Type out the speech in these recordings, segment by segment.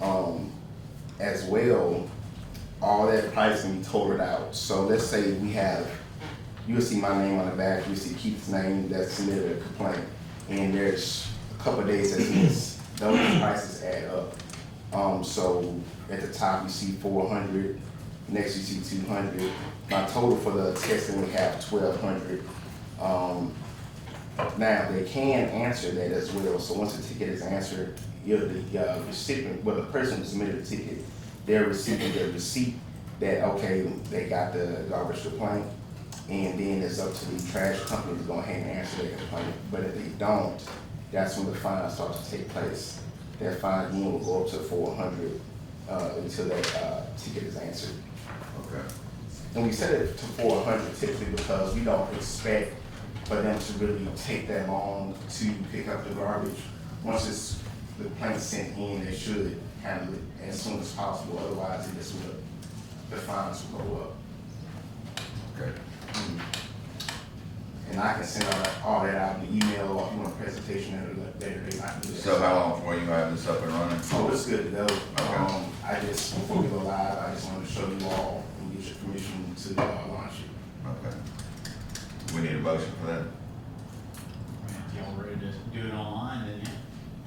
um, as well, all that pricing totaled out. So let's say we have, you'll see my name on the back, you see Keith's name that submitted a complaint, and there's a couple of days that's missed. Those prices add up. Um, so at the top, you see four hundred, next you see two hundred. My total for the testing, we have twelve hundred. Um, now, they can answer that as well, so once the ticket is answered, you're the uh, recipient, well, the person who submitted the ticket, they're receiving their receipt that, okay, they got the garbage complaint, and then it's up to the trash company to go ahead and answer their complaint, but if they don't, that's when the fine starts to take place. That fine again will go up to four hundred, uh, until that, uh, ticket is answered. Okay. And we set it to four hundred typically because we don't expect for them to really take that long to pick up the garbage. Once it's, the plaint's sent in, they should handle it as soon as possible, otherwise it just will, the fines will go up. Okay. And I can send all, all that out in the email or if you want a presentation at a later date, I can do that. So how long before you have this up and running? Oh, it's good to go. Um, I just, before we go live, I just wanted to show you all and get your permission to uh, launch it. Okay. We need a motion for that? Y'all ready to do it online, didn't you?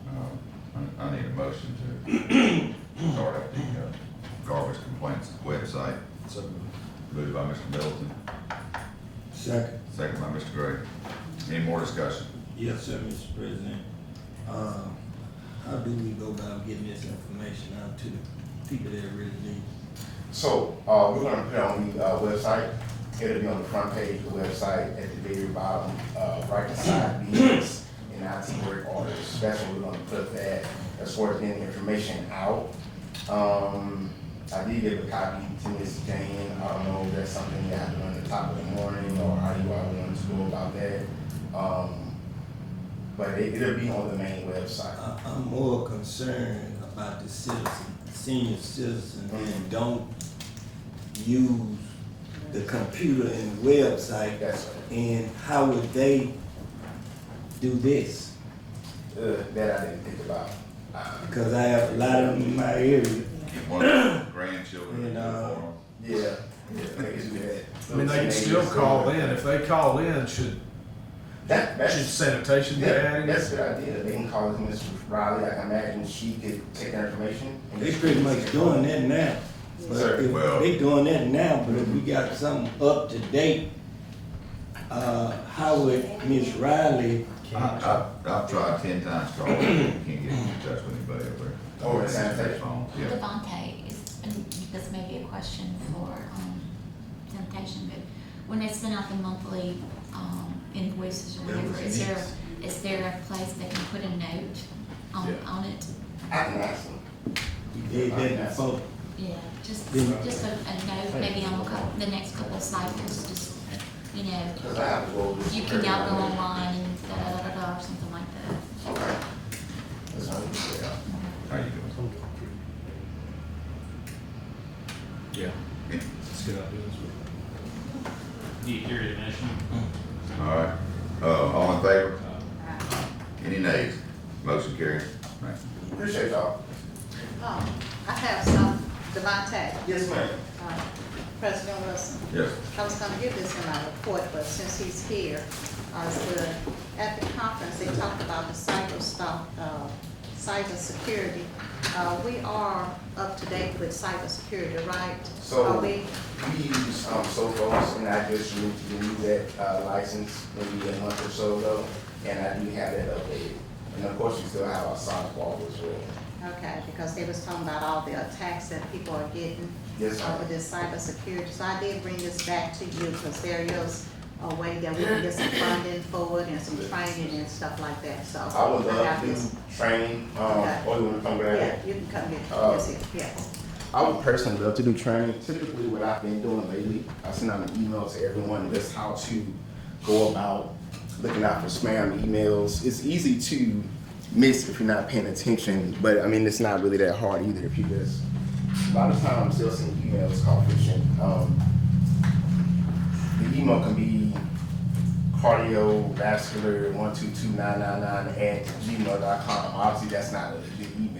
Um, I- I need a motion to start up the uh, garbage complaints website. Moved by Mr. Middleton, Second. second by Mr. Gray. Any more discussion? Yes, sir, Mr. President. Uh, How do we go about getting this information out to the people that really need? So, uh, we're gonna put it on the, uh, website, it'll be on the front page of the website, at the very bottom, uh, right beside meetings and IT work orders, that's where we're gonna put that, as far as getting information out. Um, I did give a copy to Ms. Jane, I don't know if that's something you have to run at the top of the morning, or how you all want to go about that. Um, but it, it'll be on the main website. I, I'm more concerned about the citizen, senior citizen, and don't use the computer and website. That's, uh, And how would they do this? that I didn't think about. Um, Because I have a lot of them in my area. Get one of the grandchildren to do it And, uh, for 'em. Yeah, yeah, they can do that. I mean, they can still call in. If they call in, should, That, should that's, sanitation be yeah, added? that's a good idea. They can call Ms. Riley, I can imagine she could take that information. and- They pretty much doing that now. But if Well- they doing that now, but if we got something up to date, uh, how would Miss Riley, I, I, I've tried ten times calling, can't get in touch with anybody over there. Oh, it's sanitation. Phone, Yeah. Devontae, is, and this may be a question for, um, sanitation, but when they send out the monthly, um, invoices or whatever, is there, is there a place they can put a note on, Yeah. on it? I can ask them. we did that before, Yeah, just, Yeah. just a, a note, maybe on a cou- the next couple of cycles, just, you know, Cause I have to go. over this you can very now go early. online and da da da da da, or something like that. Okay. That's how we do that. How you doing? Yeah. Yeah. Let's get out of this. Do you hear the motion? All right, uh, all in favor? Any nays? Motion carries. Right. Appreciate y'all. Oh, I have some, Devontae, Yes, ma'am. uh, President Wilson. Yes. I was gonna give this in my report, but since he's here, I was good. At the conference, they talked about the cyber stop, uh, cybersecurity. Uh, we are up to date with cybersecurity, right? So- Are we? We use, um, Sophos and I just renewed that, uh, license maybe a month or so ago, and I do have that updated. And of course, we still have our sonic wall as well. Okay, because they was talking about all the attacks that people are getting. Yes, ma'am. Over this cybersecurity, so I did bring this back to you, because there is a way that we can get some funding for it and some training and stuff like that, so. I would love have this. to train, um, Okay. or you wanna come grab it? Yeah, you can come get, Uh, yes, yes, yes. I would personally love to do training. Typically, what I've been doing lately, I send out an email to everyone just how to go about looking out for spam emails. It's easy to miss if you're not paying attention, but I mean, it's not really that hard either if you just. A lot of times, they'll send emails called phishing. Um, the email can be cardiovascular one two two nine nine nine at gmail.com. Obviously, that's not a good email.